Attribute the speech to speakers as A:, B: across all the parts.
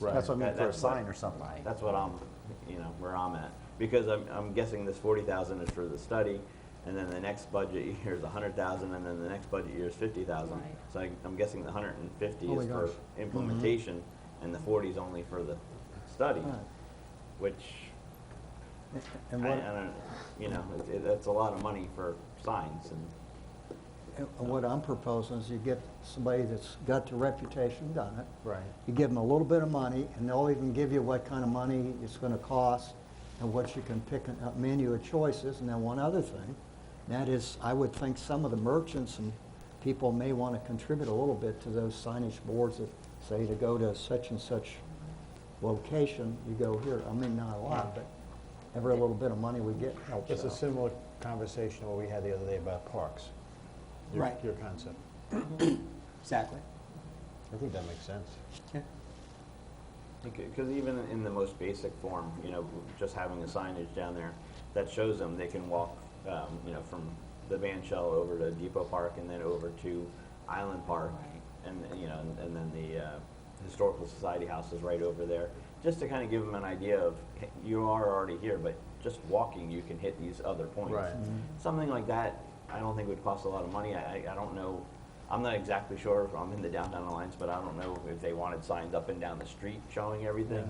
A: Right.
B: That's what I mean
C: That-
B: for a
C: that's what-
B: sign or something.
C: That's what I'm, you know, where I'm at. Because I'm, I'm guessing this forty thousand is for the study, and then the next budget year is a hundred thousand, and then the next budget year is fifty thousand.
D: Right.
C: So I- I'm guessing the hundred and fifty
E: Oh my
C: is for
E: gosh.
B: Mm-hmm.
C: implementation, and the forty is only for the study,
B: Right.
C: which, I I
B: And what,
C: don't, you know, it- it- that's a lot of money for signs and.
E: And what I'm proposing is you get somebody that's got the reputation, done it.
B: right,
E: You give them a little bit of money, and they'll even give you what kind of money it's gonna cost, and what you can pick, and- a menu of choices, and then one other thing, and that is, I would think some of the merchants and people may wanna contribute a little bit to those signage boards that say to go to such and such location, you go here, I mean, not a lot, but every little bit of money we get helps
A: It's a
E: out.
A: similar conversation what we had the other day about parks. your-
F: Right.
A: Your concept.
F: Exactly.
A: I think that makes sense.
C: Because even in the most basic form, you know, just having the signage down there that shows them they can walk, um, you know, from the Van Shell over to Depot Park and then over to Island Park. And, you know, and- and then the uh, Historical Society House is right over there. Just to kind of give them an idea of, hey, you are already here, but just walking, you can hit these other points.
A: Right.
C: Something like that, I don't think would cost a lot of money. I, I- I don't know, I'm not exactly sure, I'm in the downtown alliance, but I don't know if they wanted signs up and down the street showing everything.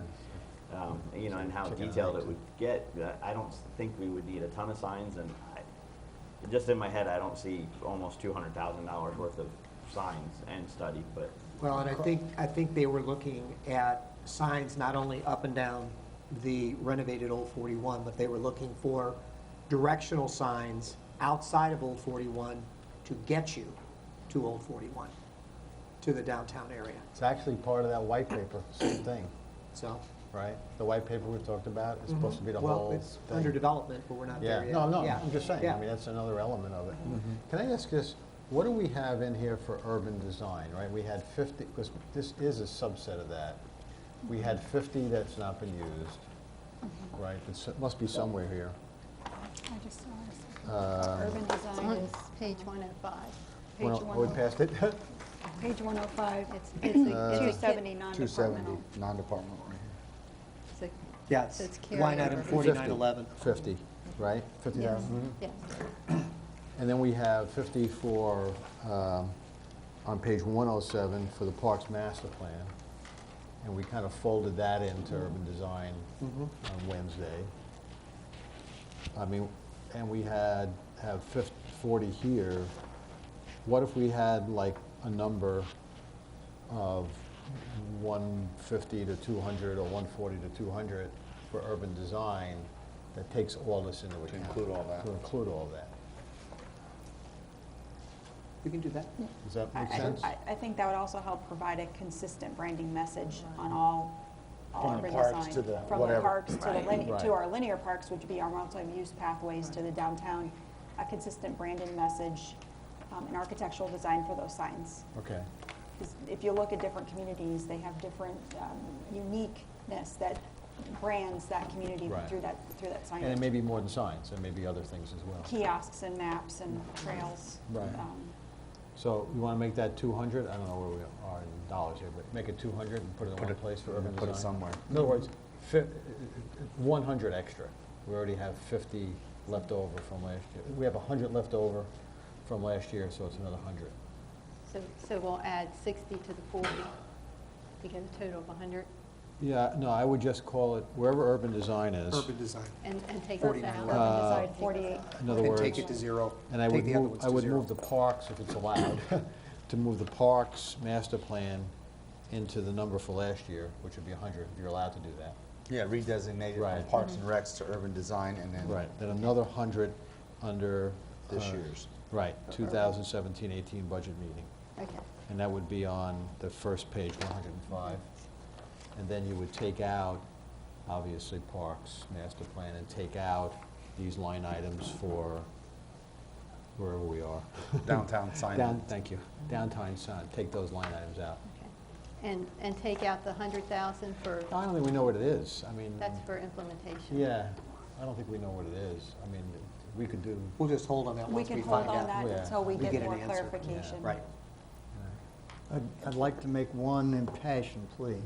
C: Um, you know, and how
A: Check it out
C: detailed it
A: later.
C: would get. Uh, I don't s- think we would need a ton of signs and I, just in my head, I don't see almost two hundred thousand dollars worth of signs and study, but,
F: Well, and I think, I think they were looking at signs not only up and down the renovated Old 41, but they were looking for directional signs outside of Old 41 to get you to Old 41, to the downtown area,
A: It's actually part of that white paper, same thing,
F: so.
A: right? The white paper we talked about is supposed to be the whole
F: Mm-hmm. Well,
A: thing.
F: it's under development, but we're not
A: Yeah,
F: there yet.
A: no, no,
F: Yeah.
A: I'm just saying,
F: Yeah. Mm-hmm.
A: I mean, that's another element of it. Can I ask this, what do we have in here for urban design, right? We had 50, because this is a subset of that. We had 50 that's not been used,
D: Mm-hmm.
A: right? It's- It must be somewhere here.
D: I just saw this.
A: Uh,
D: Urban design is page 105.
A: well,
D: Page
A: Are we
D: 105.
A: past it?
D: Page 105, it's, it's a-
A: Uh,
D: it's a 270
E: 270,
D: non-departmental.
E: non-departmental right here.
D: It's a-
F: Yeah, it's
D: It's
F: line
D: carryover.
F: item
D: 50.
F: 4911.
A: 50, right? Mm-hmm.
D: Yes,
A: 50,000?
D: yes.
A: And then we have 50 for, um, on page 107, for the Parks Master Plan. And we kind of folded that into
E: Mm-hmm.
A: urban design on Wednesday. I mean, and we had, have fif- 40 here. What if we had like a number of 150 to 200 or 140 to 200 for urban design that takes all this into account?
E: include all that.
A: To include all that.
F: We can do that.
A: Does that
G: I-
A: make
G: I-
A: sense?
G: I, I think that would also help provide a consistent branding message on all, all
A: From the
G: urban
A: parks
G: design.
A: to the
G: From the
A: whatever.
G: parks to the, lin-
A: Right.
G: to our linear parks, which would be our multi-use pathways to the downtown, a consistent branding message, um, and architectural design for those signs.
A: Okay,
G: 'Cause If you look at different communities, they have different um, uniqueness that brands that community
A: Right.
G: through that, through that signage.
A: and it may be more than signs, it may be other things as well.
G: Kiosks and maps and trails.
A: Right.
G: um,
A: So you want to make that 200, I don't know where we are in dollars here, but make it 200 and put it in one place for urban design?
E: put it somewhere.
A: In other words, fi- 100 extra. We already have 50 left over from last year. We have 100 left over from last year, so it's another 100.
H: So, so we'll add 60 to the 40 to get a total of 100
A: Yeah, no, I would just call it, wherever urban design is,
F: Urban design.
H: and, and take us
F: 49.
H: out.
A: Uh,
G: Sorry, 48.
A: in other
F: Then
A: words.
F: take it to zero.
A: And I
F: Take
A: would
F: the other
A: move,
F: ones
A: I
F: to
A: would
F: zero.
A: move the parks, if it's allowed, to move the parks master plan into the number for last year, which would be 100, if you're allowed to do that.
E: Yeah, redesignated
A: Right.
E: from Parks and Recs to urban design and then.
A: Then another 100 under.
E: This
A: uh,
E: year's.
A: Right, 2017-18 budget meeting.
H: Okay.
A: And that would be on the first page, 105. And then you would take out, obviously, parks master plan, and take out these line items for wherever we are.
E: Downtown signage.
A: Down, thank you. Downtown sign, take those line items out.
H: Okay. And, and take out the 100,000 for,
A: I don't think we know what it is. I mean,
H: that's for implementation.
A: yeah, I don't think we know what it is. I mean, we could do,
F: We'll just hold on that
G: We
F: once
G: can
F: we
G: hold
F: find
G: on
F: out.
G: that
A: Yeah.
G: until we
F: We
G: get
F: get an
G: more
F: answer. Yeah.
G: clarification.
F: Right.
E: Right.
A: uh,
E: I'd, I'd like to make one impassioned plea.